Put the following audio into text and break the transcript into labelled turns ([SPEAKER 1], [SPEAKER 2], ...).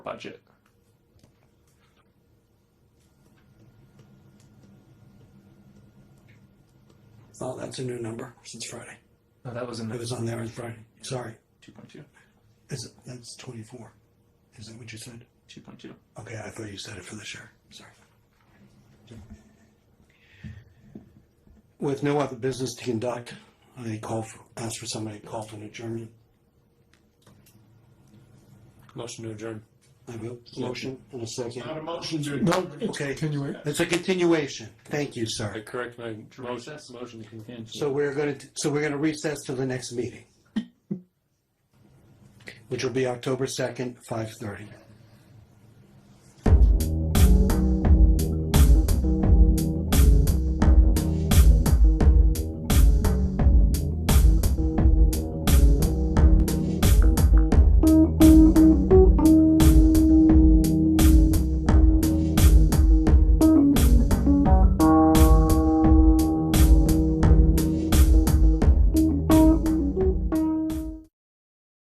[SPEAKER 1] budget
[SPEAKER 2] Oh, that's a new number since Friday.
[SPEAKER 1] no that was in
[SPEAKER 2] It
[SPEAKER 1] the
[SPEAKER 2] was on there on Friday. Sorry.
[SPEAKER 1] 2.2
[SPEAKER 2] Is it, that's 24. Is that what you said?
[SPEAKER 1] 2.2
[SPEAKER 2] Okay, I thought you said it for this year. Sorry. With no other business to conduct, I call for, ask for somebody to call for an adjournment.
[SPEAKER 3] Motion to adjourn.
[SPEAKER 2] I have a motion and a second.
[SPEAKER 4] Not a motion to.
[SPEAKER 3] No,
[SPEAKER 2] Okay.
[SPEAKER 3] Continue.
[SPEAKER 2] It's a continuation. Thank you,
[SPEAKER 3] I
[SPEAKER 2] sir.
[SPEAKER 3] correct my motion,
[SPEAKER 1] recess?
[SPEAKER 3] motion to continue.
[SPEAKER 2] So we're gonna, so we're gonna recess to the next meeting. Which will be October second, five thirty.